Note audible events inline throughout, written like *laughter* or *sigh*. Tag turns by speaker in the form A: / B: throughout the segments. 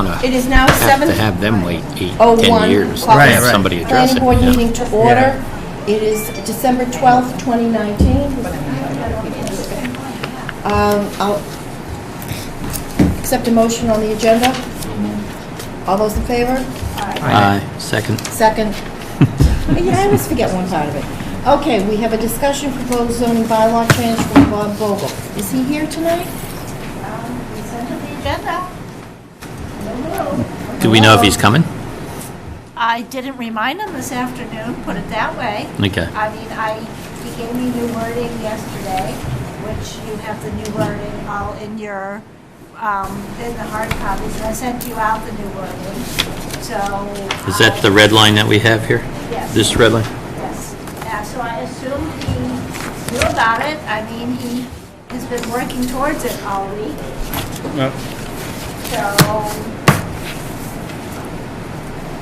A: It is now
B: have
A: seven.
B: to have them wait eight,
A: Oh,
B: 10
A: one
B: years to
A: o'clock.
C: Right,
B: have
C: right.
B: somebody address
A: Planning
B: it.
A: board
B: yeah.
A: meeting to order. It is December 12th, 2019. Um, I'll accept a motion on the agenda. All those in favor?
B: Aye, second.
C: *laughs*
A: Second. Yeah, I always forget one part of it. Okay, we have a discussion proposed zoning bylaw change from Bob Vogel. Is he here tonight?
B: Do we know if he's coming?
D: I didn't remind him this afternoon, put it that way.
B: Okay.
D: I mean, I, he gave me new wording yesterday, which you have the new wording all in your, um, in the hard copies, and I sent you out the new wording, so.
B: Is that the red line that we have here?
D: Yes.
B: This red line?
D: Yes, yeah, so I assume he knew about it, I mean, he has been working towards it all week, so.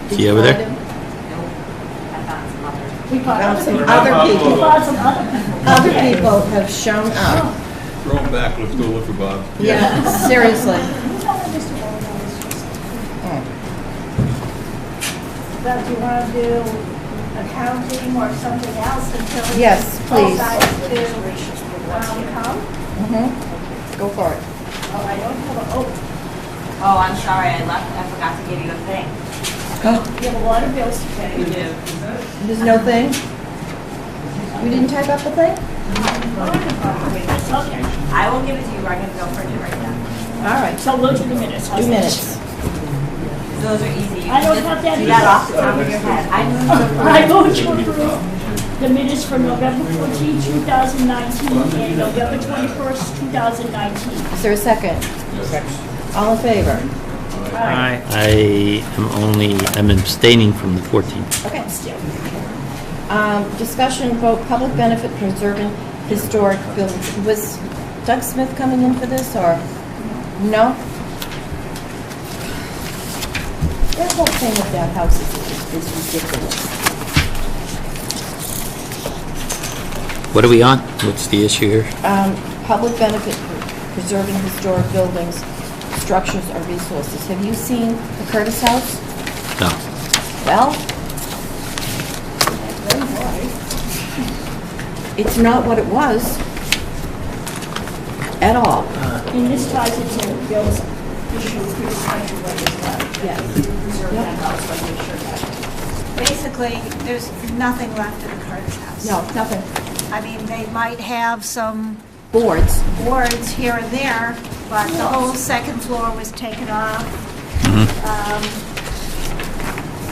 B: Is he over there?
A: We found some other people. Other people have shown up.
E: Throw them back, let's go look for Bob.
A: Yeah, seriously. Hmm.
D: But do you want to do accounting or something else until?
A: Yes, please.
D: Decides to, um, come?
A: *laughs* Go for it.
D: Oh, I don't have a, oh,
F: Oh, I'm sorry, I left, I forgot to give you a
A: *gasps*
F: thing.
A: Oh.
D: you have a lot of bills to pay.
A: There's no thing? We didn't type up the thing?
F: I will give it to you, I'm gonna go print it right now.
A: All right,
D: So we'll do the minutes.
A: two minutes.
F: Those are easy. You
G: I
F: can
G: don't
F: just
G: have
F: Do
G: that either.
F: that off the top of your head. I moved to
G: I vote to approve the minutes for November 14, 2019, and November 21st, 2019.
A: Is there a second? All in favor?
C: Aye.
B: I am only, I'm abstaining from the 14th.
A: Okay. Um, Discussion vote, public benefit preserving historic buildings. Was Doug Smith coming in for this, or? No? That whole thing with that house is- is ridiculous.
B: What are we on? What's the issue here?
A: Um, Public benefit pre- preserving historic buildings, structures, or resources. Have you seen the Curtis House?
B: No.
A: Well, it's not what it was at all.
G: And this ties into Bill's issue with his countrywide as well.
A: Yes.
G: Preserve that house, like make sure that.
D: Basically, there's nothing left in the Curtis house.
A: No, nothing.
D: I mean, they might have some
A: Boards.
D: boards here and there, but the whole second floor was taken off. Um,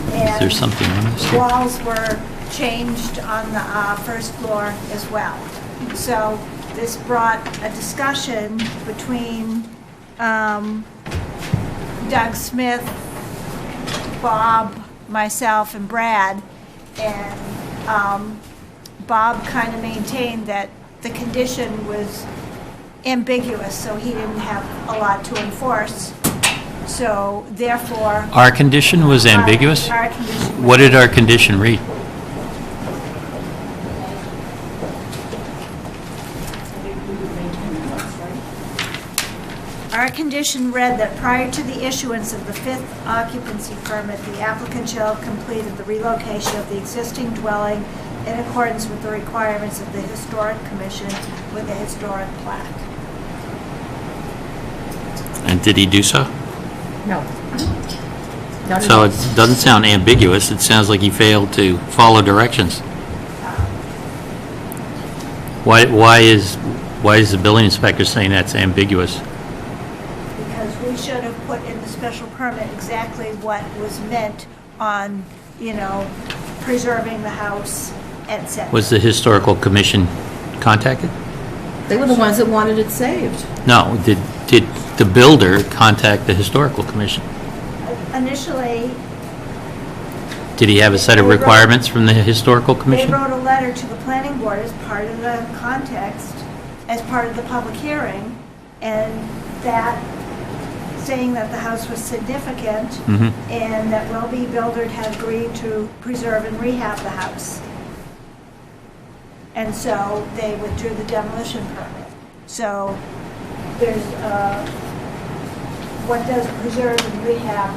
B: Mm-hmm. Is there
D: and
B: something on this here?
D: Walls were changed on the uh, first floor as well. So this brought a discussion between um, Doug Smith, Bob, myself, and Brad, and um, Bob kind of maintained that the condition was ambiguous, so he didn't have a lot to enforce. So therefore.
B: Our condition was ambiguous?
D: Our our condition. was-
B: What did our condition read?
D: Our condition read that prior to the issuance of the fifth occupancy permit, the applicant shall have completed the relocation of the existing dwelling in accordance with the requirements of the Historic Commission with a historic plaque.
B: And did he do so?
A: No. Not
B: So it
A: enough.
B: doesn't sound ambiguous, it sounds like he failed to follow directions. Why, why is, why is the building inspector saying that's ambiguous?
D: Because we should have put in the special permit exactly what was meant on, you know, preserving the house, et cetera.
B: Was the historical commission contacted?
A: They were the ones that wanted it saved.
B: No, did, did the builder contact the historical commission?
D: Initially,
B: Did he have a set of requirements from the historical
D: They
B: commission?
D: wrote a letter to the planning board as part of the context, as part of the public hearing, and that, saying that the house was significant,
B: Mhm.
D: and that Welby Builder had agreed to preserve and rehab the house. And so they withdrew the demolition permit. So there's, uh, what does preserve and rehab